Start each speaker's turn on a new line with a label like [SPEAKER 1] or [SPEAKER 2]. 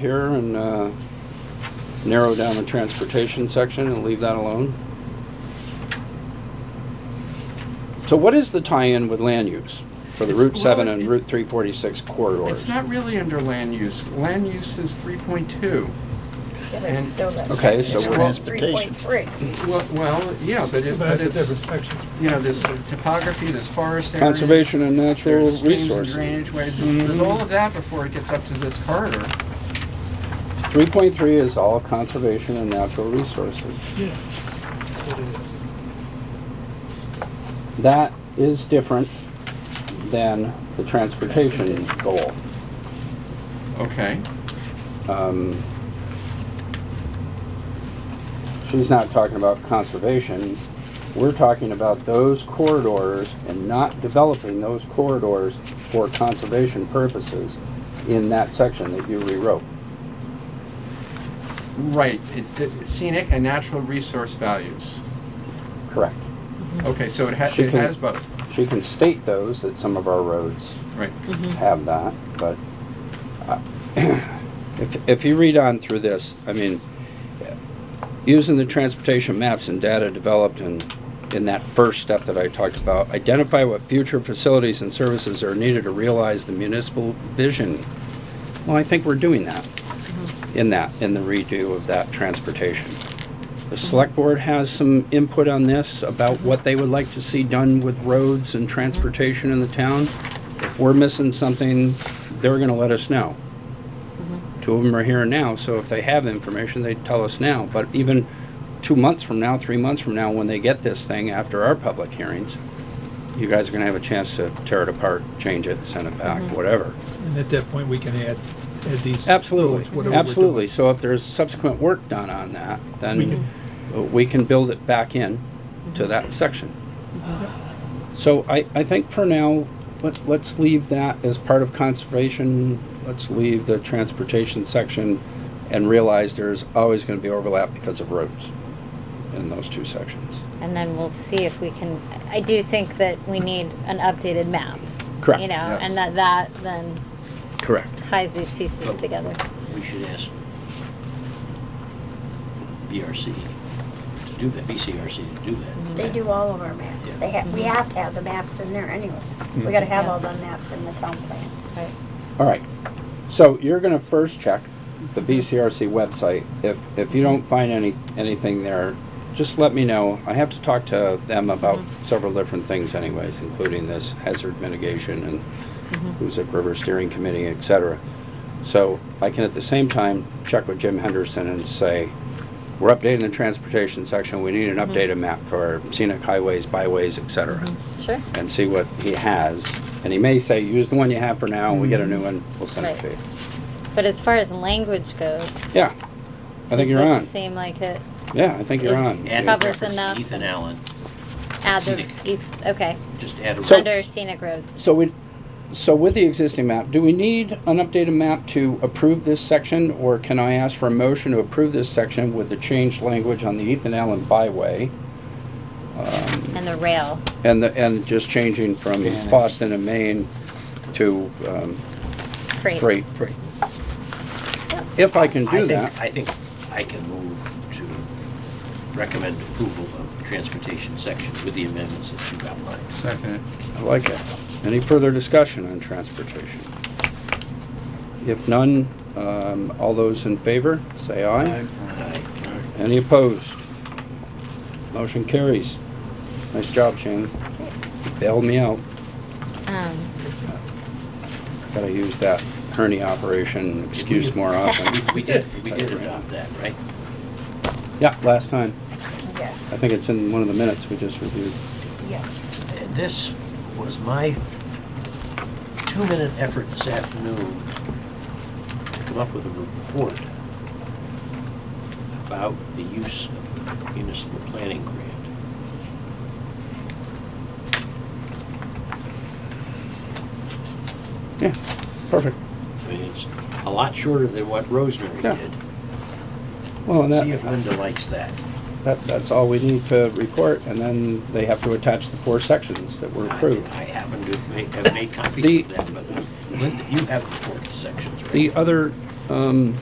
[SPEAKER 1] here and uh, narrow down the transportation section and leave that alone. So what is the tie-in with land use for the
[SPEAKER 2] It's-
[SPEAKER 1] Route 7
[SPEAKER 2] well, it-
[SPEAKER 1] and Route 346 corridors?
[SPEAKER 2] It's not really under land use. Land use is three point two.
[SPEAKER 3] Yeah, but it's still not.
[SPEAKER 1] Okay, so we're-
[SPEAKER 3] Three point three.
[SPEAKER 2] Well, well, yeah, but it, but
[SPEAKER 4] But it's a
[SPEAKER 2] it's,
[SPEAKER 4] different section.
[SPEAKER 2] you know, there's uh, topography, there's forest areas.
[SPEAKER 1] Conservation and natural
[SPEAKER 2] There's streams and
[SPEAKER 1] resources.
[SPEAKER 2] drainage ways. There's there's all of that before it gets up to this corridor.
[SPEAKER 1] 3.3 is all conservation and natural resources.
[SPEAKER 4] Yeah. That's what it is.
[SPEAKER 1] That is different than the transportation goal.
[SPEAKER 2] Okay.
[SPEAKER 1] Um, She's not talking about conservation. We're talking about those corridors and not developing those corridors for conservation purposes in that section that you rewrote.
[SPEAKER 2] Right, it's it's scenic and natural resource values.
[SPEAKER 1] Correct.
[SPEAKER 4] Mm-hmm.
[SPEAKER 2] Okay, so it has,
[SPEAKER 1] She
[SPEAKER 2] it
[SPEAKER 1] can-
[SPEAKER 2] has both,
[SPEAKER 1] She can state those, that some of our roads
[SPEAKER 2] right.
[SPEAKER 4] Mm-hmm.
[SPEAKER 1] have that, but uh, if, if you read on through this, I mean, using the transportation maps and data developed in, in that first step that I talked about, identify what future facilities and services are needed to realize the municipal vision. Well, I think we're doing that in that, in the redo of that transportation. The select board has some input on this about what they would like to see done with roads and transportation in the town. If we're missing something, they're gonna let us know. Two of them are here now, so if they have information, they tell us now. But even two months from now, three months from now, when they get this thing after our public hearings, you guys are gonna have a chance to tear it apart, change it, send it back, whatever.
[SPEAKER 4] And at that point, we can add, add these. roads, whatever we're
[SPEAKER 1] Absolutely,
[SPEAKER 4] doing.
[SPEAKER 1] absolutely. So if there's subsequent work done on that,
[SPEAKER 4] We
[SPEAKER 1] then
[SPEAKER 4] can-
[SPEAKER 1] uh, we can build it back in to that section. So I, I think for now, let's, let's leave that as part of conservation. Let's leave the transportation section and realize there's always gonna be overlap because of roads in those two sections.
[SPEAKER 5] And then we'll see if we can, I do think that we need an updated map.
[SPEAKER 1] Correct.
[SPEAKER 5] You know,
[SPEAKER 2] Yes.
[SPEAKER 5] and that that then
[SPEAKER 1] Correct.
[SPEAKER 5] ties these pieces together.
[SPEAKER 6] we should ask BRC to do that, BCRC to do that.
[SPEAKER 3] They do all of our maps. They have, we have to have the maps in there anyway. We gotta have all the maps in the town plan.
[SPEAKER 5] Right.
[SPEAKER 1] All right. So you're gonna first check the BCRC website. If, if you don't find any, anything there, just let me know. I have to talk to them about several different things anyways, including this hazard mitigation and Hoosick River Steering Committee, et cetera. So I can at the same time check with Jim Henderson and say, we're updating the transportation section. We need an updated map for scenic highways, byways, et cetera
[SPEAKER 5] Sure.
[SPEAKER 1] and see what he has. And he may say, use the one you have for now, and we get a new one, we'll send it to you.
[SPEAKER 5] Mm-hmm. Right. But as far as language goes,
[SPEAKER 1] Yeah, I think
[SPEAKER 5] does
[SPEAKER 1] you're
[SPEAKER 5] this
[SPEAKER 1] on.
[SPEAKER 5] seem like it
[SPEAKER 1] Yeah, I think you're
[SPEAKER 5] is-
[SPEAKER 1] on.
[SPEAKER 6] Add a
[SPEAKER 5] Covers
[SPEAKER 6] reference to
[SPEAKER 5] enough.
[SPEAKER 6] Ethan Allen,
[SPEAKER 5] add the,
[SPEAKER 6] Scenic.
[SPEAKER 5] e- okay,
[SPEAKER 6] just add a
[SPEAKER 1] So-
[SPEAKER 6] reference.
[SPEAKER 5] under scenic roads?
[SPEAKER 1] So we, so with the existing map, do we need an updated map to approve this section? Or can I ask for a motion to approve this section with the changed language on the Ethan Allen byway?
[SPEAKER 5] And the rail,
[SPEAKER 1] And the, and just changing from Boston and Maine to um,
[SPEAKER 5] freight.
[SPEAKER 1] freight. If I can
[SPEAKER 6] I
[SPEAKER 1] do
[SPEAKER 6] think,
[SPEAKER 1] that,
[SPEAKER 6] I think I can move to recommend approval of the transportation section with the amendments that you've outlined.
[SPEAKER 2] Second it.
[SPEAKER 1] I like it. Any further discussion on transportation? If none, um, all those in favor, say aye.
[SPEAKER 6] Aye.
[SPEAKER 1] Any opposed? Motion carries. Nice job, Shannon. Bailed me out.
[SPEAKER 5] Um,
[SPEAKER 1] Gotta use that hernia operation excuse more
[SPEAKER 6] We,
[SPEAKER 1] often.
[SPEAKER 6] we did, we did adopt that, right?
[SPEAKER 1] Yeah, last time.
[SPEAKER 3] Yes,
[SPEAKER 1] I think it's in one of the minutes we just reviewed.
[SPEAKER 3] yes.
[SPEAKER 6] And this was my two-minute effort this afternoon to come up with a report about the use of municipal planning grant.
[SPEAKER 1] Yeah, perfect.
[SPEAKER 6] I mean, it's a lot shorter than what Rosemary
[SPEAKER 1] Yeah.
[SPEAKER 6] did.
[SPEAKER 1] Well, and
[SPEAKER 6] See if
[SPEAKER 1] that,
[SPEAKER 6] Linda likes that.
[SPEAKER 1] that, that's all we need to report, and then they have to attach the four sections that were
[SPEAKER 6] I-
[SPEAKER 1] approved.
[SPEAKER 6] I happen to make- have made copies
[SPEAKER 1] The-
[SPEAKER 6] of that, but uh, Linda, you have the four sections, right?
[SPEAKER 1] The other, um,